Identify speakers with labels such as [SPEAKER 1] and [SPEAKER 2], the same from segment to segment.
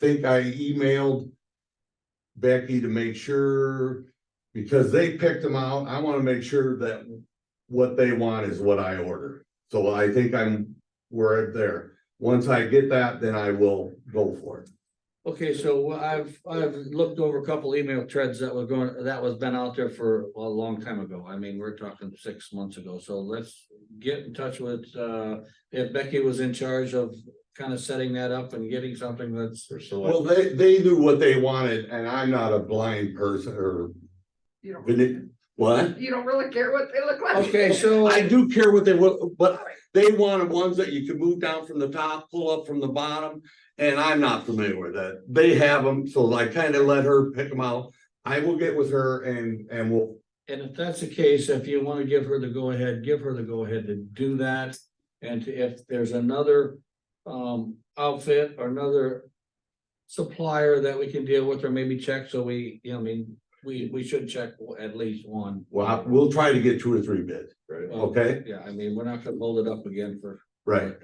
[SPEAKER 1] think I emailed Becky to make sure, because they picked them out, I wanna make sure that what they want is what I order. So I think I'm, we're there. Once I get that, then I will go for it.
[SPEAKER 2] Okay, so what I've, I've looked over a couple email threads that were going, that was been out there for a long time ago. I mean, we're talking six months ago, so let's. Get in touch with, uh, if Becky was in charge of kind of setting that up and getting something that's.
[SPEAKER 1] Well, they, they knew what they wanted, and I'm not a blind person or,
[SPEAKER 3] You don't,
[SPEAKER 1] vin- what?
[SPEAKER 3] you don't really care what they look like.
[SPEAKER 2] Okay, so,
[SPEAKER 1] I do care what they will, but they wanted ones that you could move down from the top, pull up from the bottom. And I'm not familiar with that. They have them, so I kind of let her pick them out. I will get with her and, and we'll,
[SPEAKER 2] and if that's the case, if you want to give her the go-ahead, give her the go-ahead to do that. And if there's another, um, outfit or another. Supplier that we can deal with or maybe check, so we, you know, I mean, we, we should check at least one.
[SPEAKER 1] well, we'll try to get two or three bids,
[SPEAKER 2] Well,
[SPEAKER 1] okay?
[SPEAKER 2] Yeah, I mean, we're not gonna hold it up again for.
[SPEAKER 1] Right.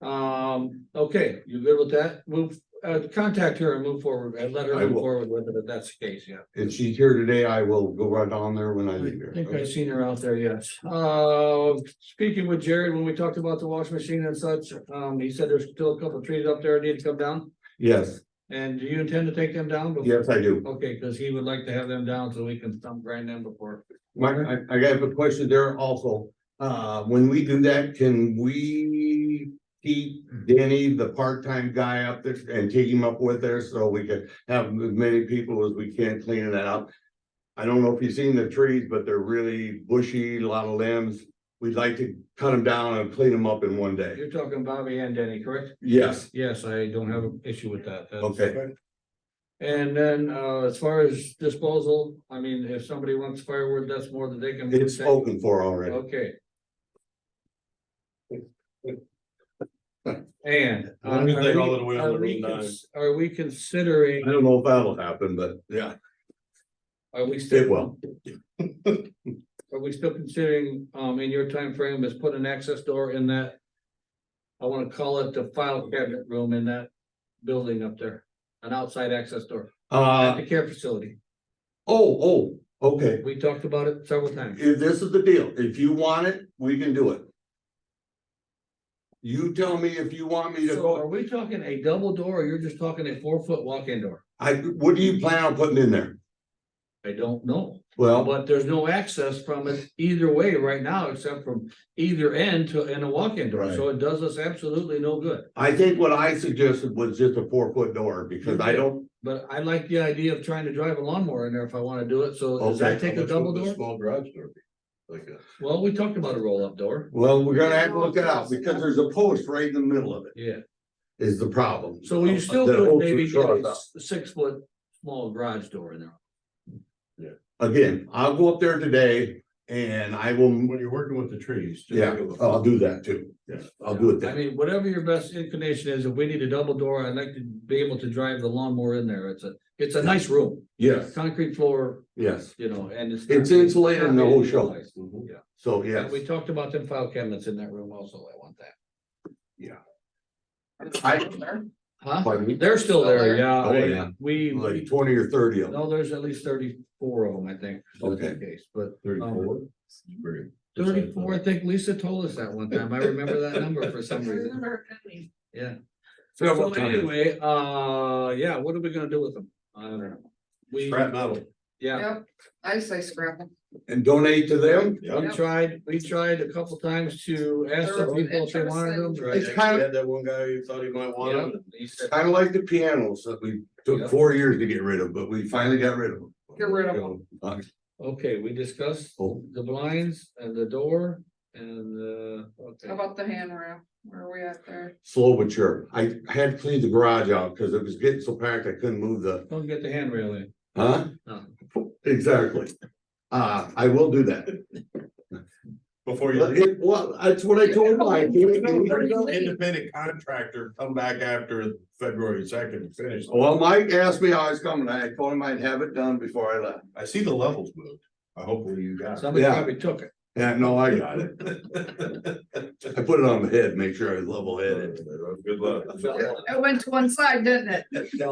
[SPEAKER 2] Um, okay, you good with that? Move, uh, contact her and move forward and let her
[SPEAKER 1] I
[SPEAKER 2] move
[SPEAKER 1] will.
[SPEAKER 2] forward with it if that's the case, yeah.
[SPEAKER 1] If she's here today, I will go right on there when I leave
[SPEAKER 2] I think
[SPEAKER 1] here.
[SPEAKER 2] I've seen her out there, yes. Uh, speaking with Jared, when we talked about the washing machine and such, um, he said there's still a couple of trees up there that need to come down.
[SPEAKER 1] Yes,
[SPEAKER 2] And do you intend to take them down? before-
[SPEAKER 1] yes, I do.
[SPEAKER 2] Okay, because he would like to have them down so we can stump grind them before.
[SPEAKER 1] Mike, I, I have a question there also. Uh, when we do that, can we keep Danny, the part-time guy up there and take him up with there so we can have as many people as we can cleaning that up? I don't know if you've seen the trees, but they're really bushy, a lot of limbs. We'd like to cut them down and clean them up in one day.
[SPEAKER 2] You're talking Bobby and Denny, correct?
[SPEAKER 1] Yes,
[SPEAKER 2] Yes, I don't have an issue with that. That's-
[SPEAKER 1] okay.
[SPEAKER 2] And then, uh, as far as disposal, I mean, if somebody wants firewood, that's more than they can.
[SPEAKER 1] It's spoken for already.
[SPEAKER 2] Okay. And. uh,
[SPEAKER 4] Let me
[SPEAKER 2] are
[SPEAKER 4] think
[SPEAKER 2] we-
[SPEAKER 4] all the way on
[SPEAKER 2] are
[SPEAKER 4] the
[SPEAKER 2] we
[SPEAKER 4] road nine.
[SPEAKER 2] cons- Are we considering,
[SPEAKER 1] I don't know if that'll happen, but yeah,
[SPEAKER 2] are we
[SPEAKER 1] it
[SPEAKER 2] still,
[SPEAKER 1] will.
[SPEAKER 2] are we still considering, um, in your time frame, is put an access door in that? I wanna call it the file cabinet room in that building up there, an outside access door, at
[SPEAKER 1] Uh,
[SPEAKER 2] the care facility.
[SPEAKER 1] oh, oh, okay.
[SPEAKER 2] We talked about it several times.
[SPEAKER 1] If this is the deal, if you want it, we can do it. You tell me if you want me to
[SPEAKER 2] So are
[SPEAKER 1] go,
[SPEAKER 2] we talking a double door or you're just talking a four foot walk-in door?
[SPEAKER 1] I, what do you plan on putting in there?
[SPEAKER 2] I don't know,
[SPEAKER 1] Well,
[SPEAKER 2] but there's no access from it either way right now, except from either end to, in a walk-in door, so it does us absolutely no good.
[SPEAKER 1] I think what I suggested was just a four foot door because I don't,
[SPEAKER 2] But I like the idea of trying to drive a lawnmower in there if I wanna do it, so does that
[SPEAKER 1] Okay.
[SPEAKER 2] take a double door?
[SPEAKER 4] Small garage door. be? Like a.
[SPEAKER 2] Well, we talked about a roll-up door,
[SPEAKER 1] well, we're gonna have to look it out because there's a post right in the middle of it
[SPEAKER 2] yeah,
[SPEAKER 1] is the problem.
[SPEAKER 2] so you still
[SPEAKER 1] That
[SPEAKER 2] could
[SPEAKER 1] holds the
[SPEAKER 2] maybe get
[SPEAKER 1] truck
[SPEAKER 2] a
[SPEAKER 1] up.
[SPEAKER 2] six-foot small garage door in there.
[SPEAKER 1] Again, I'll go up there today and I will,
[SPEAKER 4] When you're working with the trees. just
[SPEAKER 1] yeah, Oh,
[SPEAKER 4] give a-
[SPEAKER 1] I'll do that too.
[SPEAKER 4] Yeah.
[SPEAKER 1] I'll do it
[SPEAKER 2] I
[SPEAKER 1] then.
[SPEAKER 2] mean, whatever your best inclination is, if we need a double door, I'd like to be able to drive the lawnmower in there, it's a, it's a nice room.
[SPEAKER 1] Yes,
[SPEAKER 2] Concrete floor,
[SPEAKER 1] yes,
[SPEAKER 2] you know, and it's.
[SPEAKER 1] It's insulated and the whole show.
[SPEAKER 4] Mhm.
[SPEAKER 1] so
[SPEAKER 2] Yeah,
[SPEAKER 1] yes.
[SPEAKER 2] we talked about them file cabinets in that room also, I want that.
[SPEAKER 1] I-
[SPEAKER 2] Huh?
[SPEAKER 1] pardon me?
[SPEAKER 2] They're still there, yeah,
[SPEAKER 1] Oh, yeah.
[SPEAKER 2] I- we,
[SPEAKER 1] Like
[SPEAKER 2] we-
[SPEAKER 1] twenty or thirty of them.
[SPEAKER 2] no, there's at least thirty-four of them, I think. if that's the Case, but
[SPEAKER 4] Thirty-four. Very-
[SPEAKER 2] thirty-four, I think Lisa told us that one time, I remember that number for some reason, yeah. So
[SPEAKER 1] Several times.
[SPEAKER 2] anyway, uh, yeah, what are we gonna do with them? I don't know. We,
[SPEAKER 4] Scrap metal.
[SPEAKER 2] yeah,
[SPEAKER 3] Yep, I say scrap them.
[SPEAKER 1] And donate to them?
[SPEAKER 4] Yeah.
[SPEAKER 2] we tried, we tried a couple times to ask the people if they wanted them.
[SPEAKER 1] It's kind of,
[SPEAKER 4] Had that one guy who thought he might want
[SPEAKER 2] Yeah,
[SPEAKER 4] them.
[SPEAKER 2] he said,
[SPEAKER 1] kind of like the pianos that we took four years to get rid of, but we finally got rid of them.
[SPEAKER 3] Get rid of them.
[SPEAKER 1] Uh,
[SPEAKER 2] Okay, we discussed
[SPEAKER 1] Oh,
[SPEAKER 2] the blinds and the door and, uh,
[SPEAKER 3] How
[SPEAKER 2] okay.
[SPEAKER 3] about the handrail? Where are we at there?
[SPEAKER 1] slow but sure. I had to clean the garage out because it was getting so packed I couldn't move the,
[SPEAKER 2] Don't get the handrail in.
[SPEAKER 1] huh?
[SPEAKER 2] No.
[SPEAKER 1] Exactly. Uh, I will do that.
[SPEAKER 4] Before
[SPEAKER 1] But
[SPEAKER 4] you.
[SPEAKER 1] It, well, that's what I told Mike.
[SPEAKER 4] Independent contractor come back after February second to finish.
[SPEAKER 1] Well, Mike asked me how I was coming. I told him I'd have it done before I left.
[SPEAKER 4] I see the levels moved. I hopefully you got. it.
[SPEAKER 2] Somebody
[SPEAKER 1] Yeah.
[SPEAKER 2] probably took it.
[SPEAKER 1] Yeah, no, I got it. I put it on the head, make sure I was level headed.
[SPEAKER 4] Good luck.
[SPEAKER 3] It went to one side, didn't it?